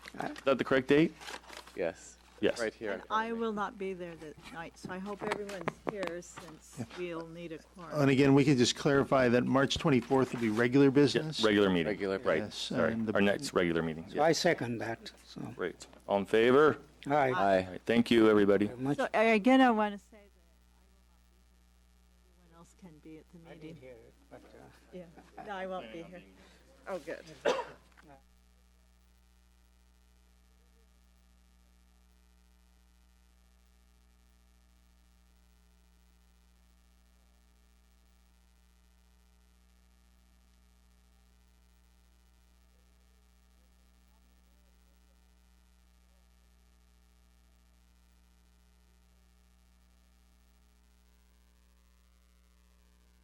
Is that the correct date? Yes. Yes. Right here. in And front I of me. will not be there that night, so I hope everyone's here since we'll need a And quorum. again, we could just clarify that March 24th would be regular business. Yes, regular meeting. Regular Right, business. sorry. and the- Our next regular meeting. So I second that, so, Great. All in favor? aye. Aye. All right, thank you, everybody. Very much. So I- again, I want to say that I will not be here. Everyone else can be at the meeting. Here, but, uh, Yeah, no, I won't be here. Oh, good.